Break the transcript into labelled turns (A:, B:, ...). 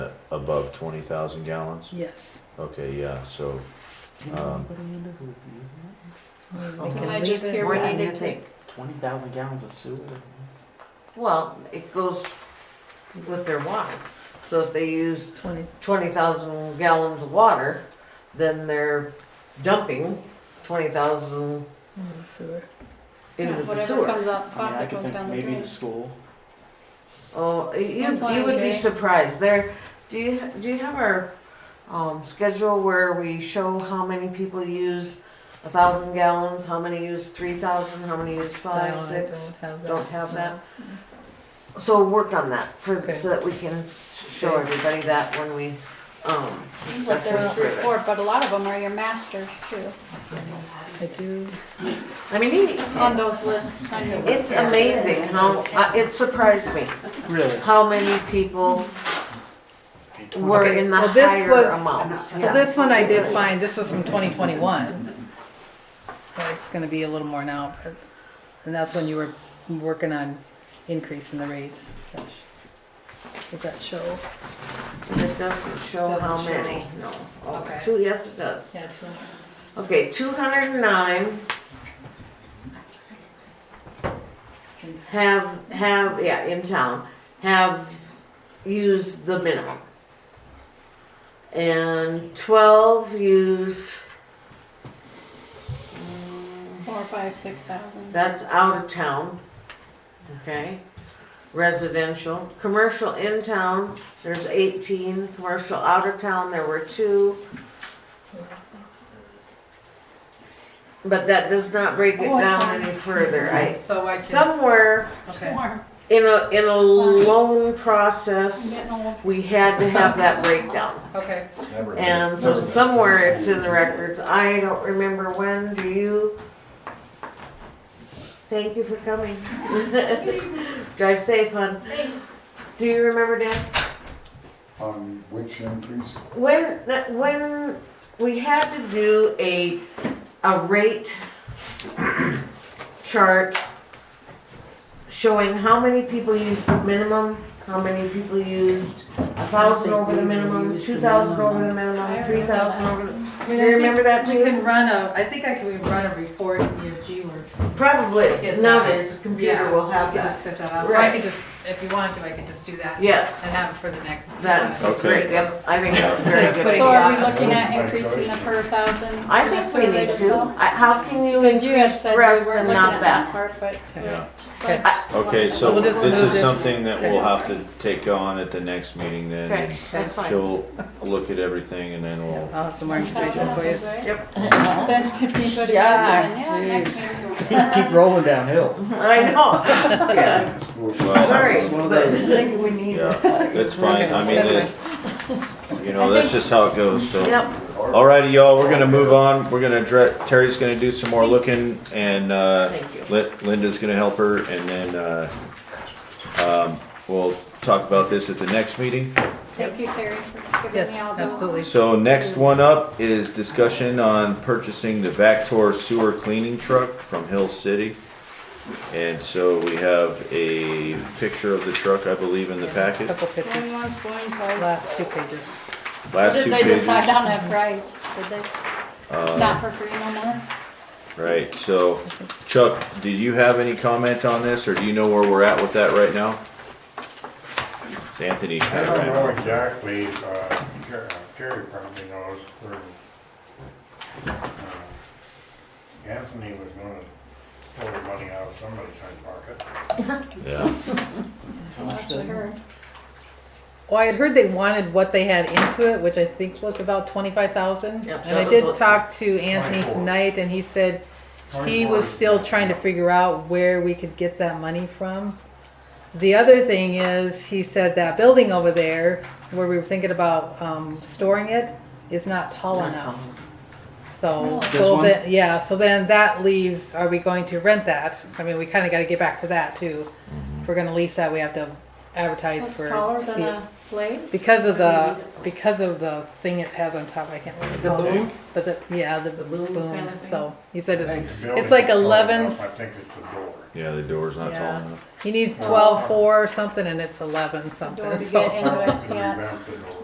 A: above twenty thousand gallons?
B: Yes.
A: Okay, yeah, so, um,
B: We
C: Can
B: can
C: I
B: leave
D: just
B: it.
D: hear
C: More
D: what
C: than you
D: needed to-
C: think.
E: Twenty thousand gallons of sewer.
C: Well, it goes with their water. So if they used
B: Twenty,
C: twenty thousand gallons of water, then they're dumping twenty thousand
B: mm, sewer.
D: Yeah,
C: into the
D: Whatever
C: sewer.
D: comes out the
E: I mean, I
D: faucet
E: could
D: goes
E: think
D: down the
E: maybe
D: drain.
E: the school.
C: Oh, you, you
D: fine,
C: would be
D: Jay.
C: surprised. There, do you, do you have our, um, schedule where we show how many people use a thousand gallons, how many use three thousand, how many use
B: No,
C: five,
B: I
C: six?
B: Don't have that.
C: Don't have that?
B: No.
C: So work on that for,
B: Okay.
C: so that we can show
B: Okay.
C: everybody that when we, um,
D: Seems
C: discuss
D: like there's
C: this
D: three,
C: further.
D: four, but a lot of them are your masters too,
B: I do,
C: I mean, he-
D: on those lists. on your list.
C: it's amazing how, uh, it surprised me
E: Really?
C: how many people were
B: Okay,
C: in the
B: well, this
C: higher
B: was-
C: amount.
B: so this one I did find, this was from twenty twenty-one. But it's gonna be a little more now, but, and that's when you were working on increasing the rates. Does that show?
C: It doesn't show how many, no. Oh,
B: Okay.
C: Two, yes, it does.
B: Yeah.
C: Okay, two hundred and nine have, have, yeah, in town, have used the minimum. And twelve use,
D: Four, five, six thousand.
C: that's out of town, okay? Residential, commercial in town, there's eighteen, commercial out of town, there were two. But that does not break it
D: Oh, it's
C: down
D: fine.
C: any further, I,
B: So I
C: somewhere
D: It's
B: Okay.
D: warm.
C: in a, in a loan process,
D: Getting old.
C: we had to have that breakdown.
B: okay.
F: Never been-
C: And so
F: never been.
C: somewhere it's in the records, I don't remember when, do you? Thank you for coming. Drive safe, hon.
D: Thanks.
C: Do you remember, Dan?
F: On which increase?
C: When, when we had to do a, a rate chart showing how many people used the minimum, how many people used a thousand over the minimum, two thousand over the minimum, three thousand over the,
G: I mean, I
C: you
G: think
C: remember that
G: We
C: too?
G: can run a, I think I can run a report in EFG works.
C: Probably,
G: Get
C: nowadays, the
G: that.
C: computer will
G: Yeah,
C: have
G: we could
C: that.
G: just get that out. So I
C: Right.
G: could just, if you want to, I could just do that and
C: Yes,
G: have it for the next.
C: that's
A: Okay.
C: great, yep, I think that's a very good.
D: So
C: idea.
D: are we looking at increasing the per thousand?
C: I
D: for the
C: think we
D: survey
C: need
D: as
C: to,
D: well?
C: I- how can you
D: Because you had
C: increase
D: said we were
C: rest
D: looking
C: and
D: at
C: not
D: that
C: that?
D: part, but.
A: yeah.
B: Okay.
D: but-
A: Okay, so
B: we'll just
A: this
B: move
A: is
B: this.
A: something that we'll have to take on at the next meeting then.
C: Okay, that's
A: and
C: fine.
A: She'll look at everything and then we'll,
B: I'll have some more
D: Five
B: information for you.
D: thousand, right?
C: Yep,
D: Then fifteen foot.
B: Yeah,
D: advance, and yeah, next year.
E: Things keep rolling downhill.
C: I know, yeah.
A: Well-
C: Sorry,
E: It's one of
C: but
E: those.
G: think we need.
A: yeah, that's fine. I mean,
B: That's
A: it- you know, that's just how it goes, so.
C: Yep,
A: Alrighty, y'all, we're gonna move on. We're gonna, dre- Terry's gonna do some more looking and, uh,
C: Thank you.
A: Lin- Linda's gonna help her and then, uh, um, we'll talk about this at the next meeting.
D: Thank you, Terry, for giving me all
B: Yes,
D: those.
B: absolutely.
A: So next one up is discussion on purchasing the Vactor sewer cleaning truck from Hill City. And so we have a picture of the truck, I believe, in the packet.
B: Couple pictures,
D: Everyone's going twice.
B: last two pages.
A: Last
D: Did
A: two
D: they
A: pages. Uh,
D: decide on that price? Did they? It's not for free no more?
A: Right, so Chuck, did you have any comment on this, or do you know where we're at with that right now? Anthony
H: I
A: kind of
H: don't know
A: ran.
H: exactly, uh, Jer- uh, Jerry probably knows, where, uh, Anthony was gonna pull the money out of somebody's side pocket.
A: Yeah,
D: So that's what I heard.
B: Well, Oh, I had heard they wanted what they had into it, which I think was about twenty-five thousand.
C: Yep,
B: And
C: that
B: I
C: was
B: did
C: what-
B: talk to Anthony
H: 24.
B: tonight and he said he was still trying to figure out where we could get that money from. The other thing is, he said that building over there, where we were thinking about, um, storing it, is not tall enough. So,
D: Really?
E: This
B: so
E: one?
B: then, yeah, so then that leaves, are we going to rent that? I mean, we kinda gotta get back to that too. If we're gonna lease that, we have to advertise
D: That's
B: for.
D: taller than
B: see-
D: a blade?
B: Because of the, because of the thing it has on top, I can't remember.
C: the boom,
B: But the, yeah, the
C: boom
B: boom,
C: kind of thing?
B: so, he said
H: I think
B: it's,
H: the building's
B: like
H: tall
B: 11
H: enough, I think it's the door.
A: yeah, the door's not tall
B: Yeah.
A: enough.
B: he needs twelve four or something and it's eleven something,
D: Door to
B: so.
D: get into it,
H: Could
D: yeah.
H: revamp the door.